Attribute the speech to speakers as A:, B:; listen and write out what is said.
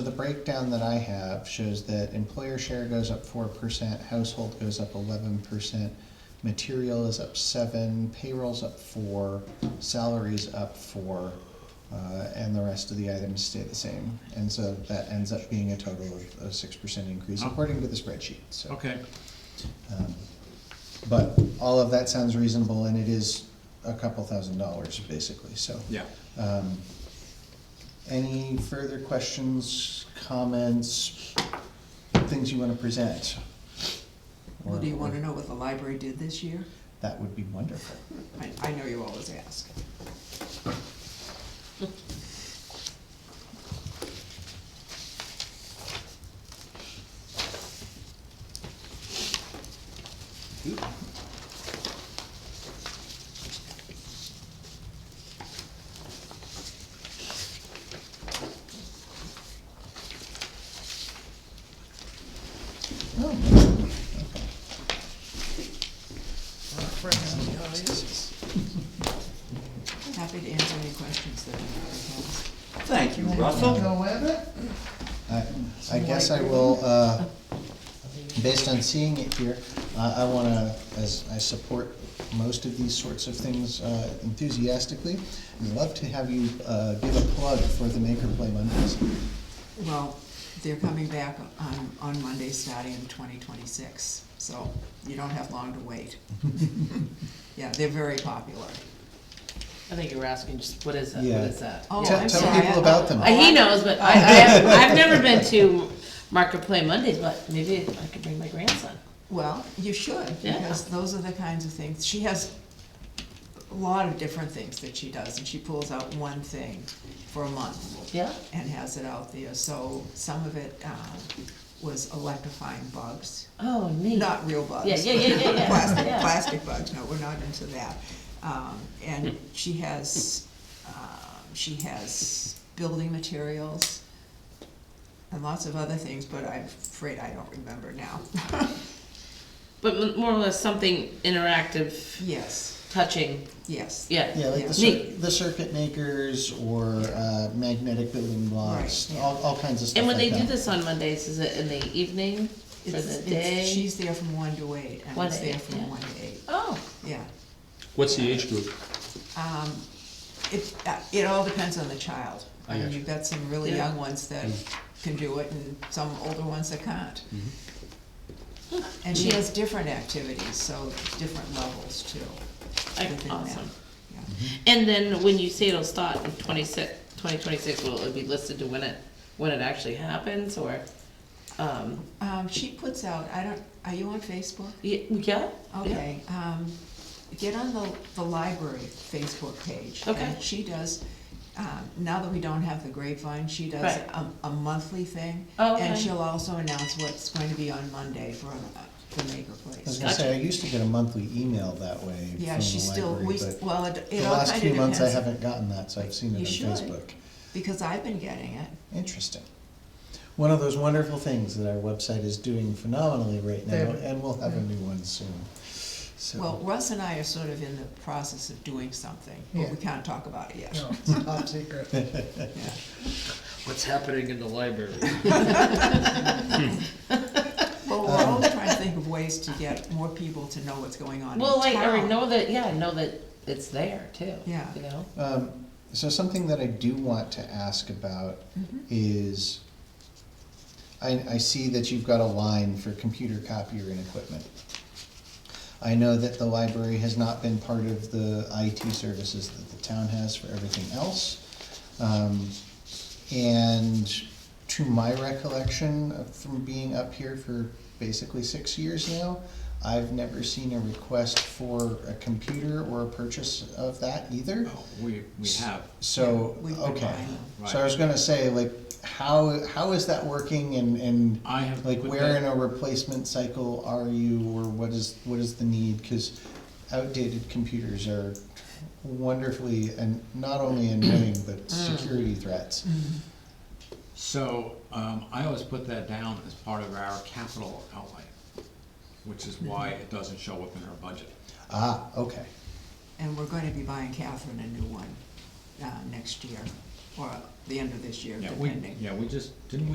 A: So the breakdown that I have shows that employer share goes up four percent, household goes up eleven percent, material is up seven, payroll's up four, salaries up four, uh, and the rest of the items stay the same. And so that ends up being a total of a six percent increase according to the spreadsheet, so.
B: Oh. Okay,
A: um, But all of that sounds reasonable and it is a couple thousand dollars basically, so.
B: yeah.
A: Um, Any further questions, comments, things you want to present?
C: Well, do you wanna know what the library did this year?
A: That would be wonderful.
C: I, I know you always ask.
A: Oh, nice. Okay.
C: Happy to answer any questions that anyone
D: Thank you,
A: you.
D: Russell.
A: I- I guess I will, uh, based on seeing it here, I I want to, as I support most of these sorts of things uh, enthusiastically, I'd love to have you uh, give a plug for the Maker Play Mondays.
C: has. Well, they're coming back on, on Monday, starting in twenty twenty-six, so you don't have long to wait. Yeah, they're very popular.
E: I think you were asking just what is that?
A: Yeah.
E: What is that?
C: Oh,
A: Tell-
C: I'm
A: tell
C: sorry, Oh,
A: people
C: I-
A: about them.
E: Uh, he knows, but I, I have, I've never been to Market Play Mondays, but maybe I could bring my grandson.
C: Well, you should,
E: Yeah.
C: because those are the kinds of things, she has a lot of different things that she does, and she pulls out one thing for a month.
E: Yeah.
C: And has it out there, so some of it, um, was electrifying bugs,
E: Oh, neat.
C: not real bugs.
E: Yeah, yeah, yeah, yeah, yeah.
C: Plastic,
E: Yeah.
C: plastic bugs, no, we're not into that. Um, and she has, um, she has building materials and lots of other things, but I'm afraid I don't remember now.
E: But m- more or less something interactive,
C: Yes.
E: touching.
C: Yes.
E: Yeah.
A: Yeah, like the,
E: Yeah.
A: cir- the circuit makers or uh, magnetic building blocks,
C: Right, yeah.
A: all, all kinds of stuff
E: And when
A: like
E: they do
A: that.
E: this on Mondays, is it in the evening or
C: It's- it's-
E: the day?
C: She's there from one to eight, and
E: One
C: it's
E: to eight,
C: there from
E: yeah.
C: one to eight,
E: oh,
C: yeah.
D: What's the age group?
C: Um, it, uh, it all depends on the child.
D: I
C: mean,
D: gotcha. Mm-hmm.
C: You've got some really
E: Yeah.
C: young ones that can do it, and some older ones that can't.
E: Mm-hmm.
C: And she has different activities, so different levels too.
E: I-
C: within that.
E: awesome.
C: Yeah.
E: And then when you say it'll start in 26, 2026, will it be listed to when it when it actually happens or? Um,
C: Um, she puts out, I don't, are you on Facebook?
E: y- yeah.
C: Okay, um, get on the, the library Facebook page.
E: Okay.
C: And she does, um, now that we don't have the grapevine, she does
E: Right.
C: a, a monthly thing.
E: Oh,
C: And
E: okay.
C: she'll also announce what's going to be on Monday for, uh, the Maker
A: I was
C: Place.
A: gonna say, I used to get a monthly email that way
C: Yeah,
A: from
C: she
A: the
C: still,
A: library,
C: we,
A: but
C: well, it,
A: the
C: it all
A: last
C: kinda
A: few months I
C: depends,
A: haven't gotten that, so I've seen it
C: You
A: on
C: should.
A: Facebook.
C: because I've been getting it.
A: Interesting. One of those wonderful things that our website is doing phenomenally right now, and we'll have a new one soon. So,
C: Well, Russ and I are sort of in the process of doing something, but we can't talk about it yet.
F: Top secret.
C: Yeah.
F: What's happening in the library?
C: Well,
A: Um,
C: we're always trying to think of ways to get more people to know what's going on in
E: Well, like, or
C: town.
E: know that, yeah, know that it's there too.
C: Yeah.
E: You know?
A: um, so something that I do want to ask about is, I, I see that you've got a line for computer copier and equipment. I know that the library has not been part of the IT services that the town has for everything else. Um, And to my recollection of- from being up here for basically six years now, I've never seen a request for a computer or a purchase of that either.
B: Oh, We, we have.
A: So,
C: Yeah, we've been
A: okay,
C: buying
B: them.
A: so I was gonna say, like, how, how is that working and, and
B: I have.
A: like
B: put
A: where in
B: that-
A: a replacement cycle are you or what is, what is the need? Cause outdated computers are wonderfully and not only annoying, but
C: Mm.
A: security threats.
B: So, um, I always put that down as part of our capital outlay, which is why it doesn't show up in our budget.
A: Ah, okay,
C: And we're going to be buying Catherine a new one uh, next year, or the end of this year,
B: Yeah, we,
C: depending.
B: yeah, we just, didn't we